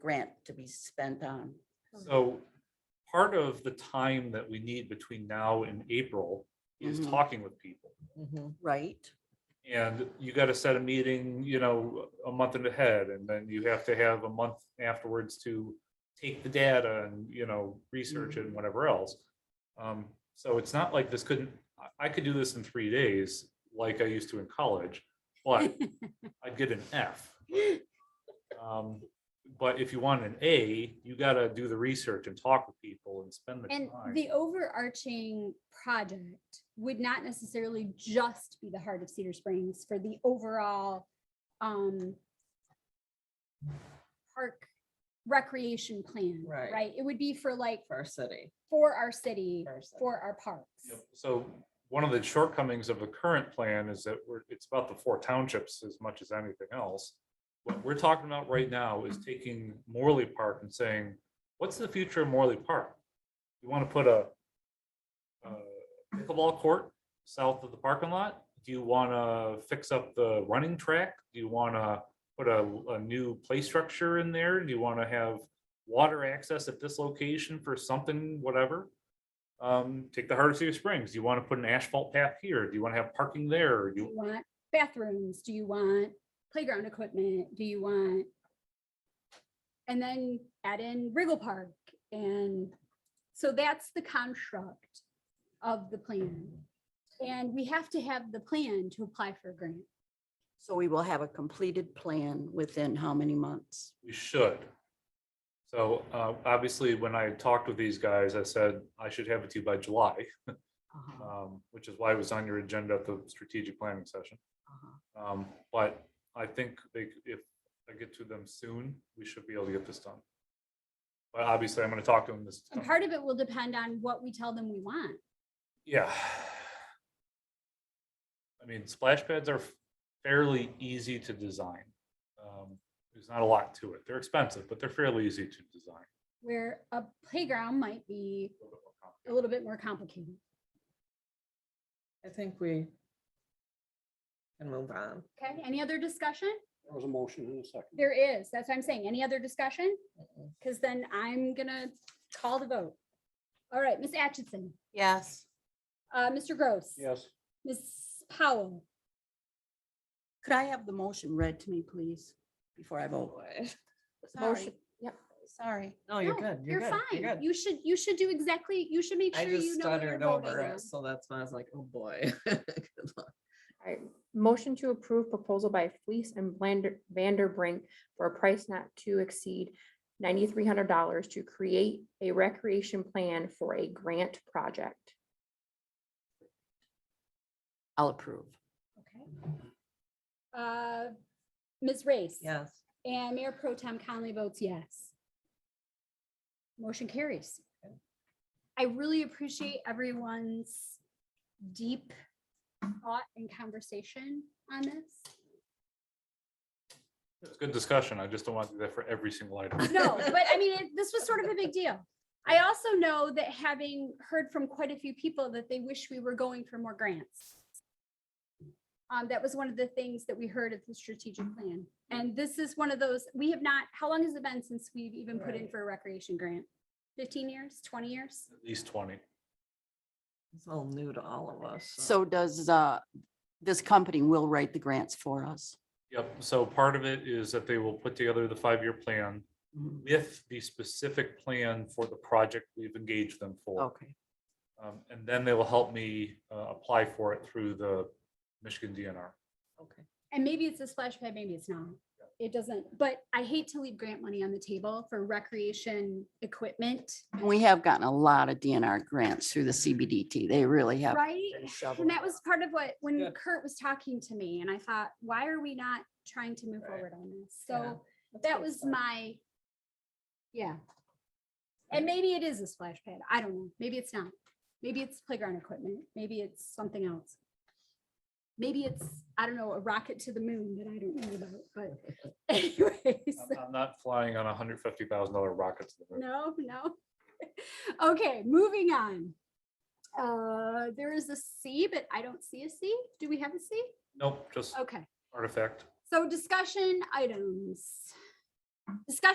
grant to be spent on. So part of the time that we need between now and April is Mhm. talking with people. Right? And you gotta set a meeting, you know, a month in ahead, and then you have to have a month afterwards to take the data and, you know, research it and whatever else. Um, so it's not like this couldn't, I, I could do this in three days, like I used to in college, but I'd get an F. Um, but if you want an A, you gotta do the research and talk with people and spend the And time. the overarching project would not necessarily just be the heart of Cedar Springs for the overall um park recreation plan, Right. right? It would be for like, for our city. for our city, For our city. for our parks. Yep. So one of the shortcomings of the current plan is that we're, it's about the four townships as much as anything else. What we're talking about right now is taking Morley Park and saying, what's the future of Morley Park? You want to put a uh, pickleball court south of the parking lot? Do you want to fix up the running track? Do you want to put a, a new play structure in there? Do you want to have water access at this location for something, whatever? Um, take the heart of Cedar Springs. Do you want to put an asphalt path here? Do you want to have parking there? Do You, you want bathrooms? Do you want playground equipment? Do you want? And then add in Riggle Park and so that's the construct of the plan. And we have to have the plan to apply for a grant. So we will have a completed plan within how many months? we should. So, uh, obviously, when I talked with these guys, I said I should have it to you by July, Uh-huh, um, which is why it was on your agenda at the strategic planning session. uh-huh. Um, but I think they, if I get to them soon, we should be able to get this done. But obviously, I'm gonna talk to them this. And part of it will depend on what we tell them we want. Yeah. I mean, splash pads are fairly easy to design. Um, There's not a lot to it. They're expensive, but they're fairly easy to design. Where a playground might be A little bit more complicated. a little bit more complicated. I think we can move on. Okay, any other discussion? There was a motion in a second. There is, that's what I'm saying. Any other discussion? Because then I'm gonna call the vote. All right, Ms. Atchison, Yes. uh, Mr. Gross. Yes, Ms. Powell, Could I have the motion read to me, please, before I vote? Motion. Sorry. Yep, sorry. No, Oh, you're Oh, No, good. you're good, fine. good. You should, you should do exactly, you should make I sure just you know what you're stuttered over voting on. it, so that's why I was like, oh, boy. Good luck. All right, motion to approve proposal by Fleece and Blander, Vanderbrink for a price not to exceed ninety-three hundred dollars to create a recreation plan for a grant project. I'll approve. Okay. Uh, Ms. Race. Yes. And Mayor Pro Tem Conley votes yes. Motion carries. I really appreciate everyone's deep thought and conversation on this. It's good discussion. I just don't want to do that for every single item. No, but I mean, it- this was sort of a big deal. I also know that having heard from quite a few people that they wish we were going for more grants. Um, that was one of the things that we heard at the strategic plan. And this is one of those, we have not, how long has it been since we've even put in Right. for a recreation grant? Fifteen years, twenty years? At least twenty. It's all new to all of us. So does, uh, this company will write the grants for us? Yep. So part of it is that they will put together the five-year plan Mhm. with the specific plan for the project we've engaged them for. Okay. Oh. Um, And then they will help me uh, apply for it through the Michigan DNR. Okay. And maybe it's a splash pad, maybe it's not. It doesn't, but I hate to leave grant money on the table for recreation equipment, We have gotten a lot of DNR grants through the CBDT. They really have. right? been shoveling And that was part of what, when Yeah. Kurt was talking to me and I thought, why are we not trying to move Right. forward on this? Yeah. So that was my, yeah. And maybe it is a splash pad. I don't know. Maybe it's not. Maybe it's playground equipment. Maybe it's something else. Maybe it's, I don't know, a rocket to the moon that I don't know about, but anyways. I'm- I'm not flying on a hundred fifty thousand dollar rocket to the moon. No, no. Okay, moving on. Uh, there is a C, but I don't see a C. Do we have a C? Nope, just Okay, artifact. so discussion items. Discussion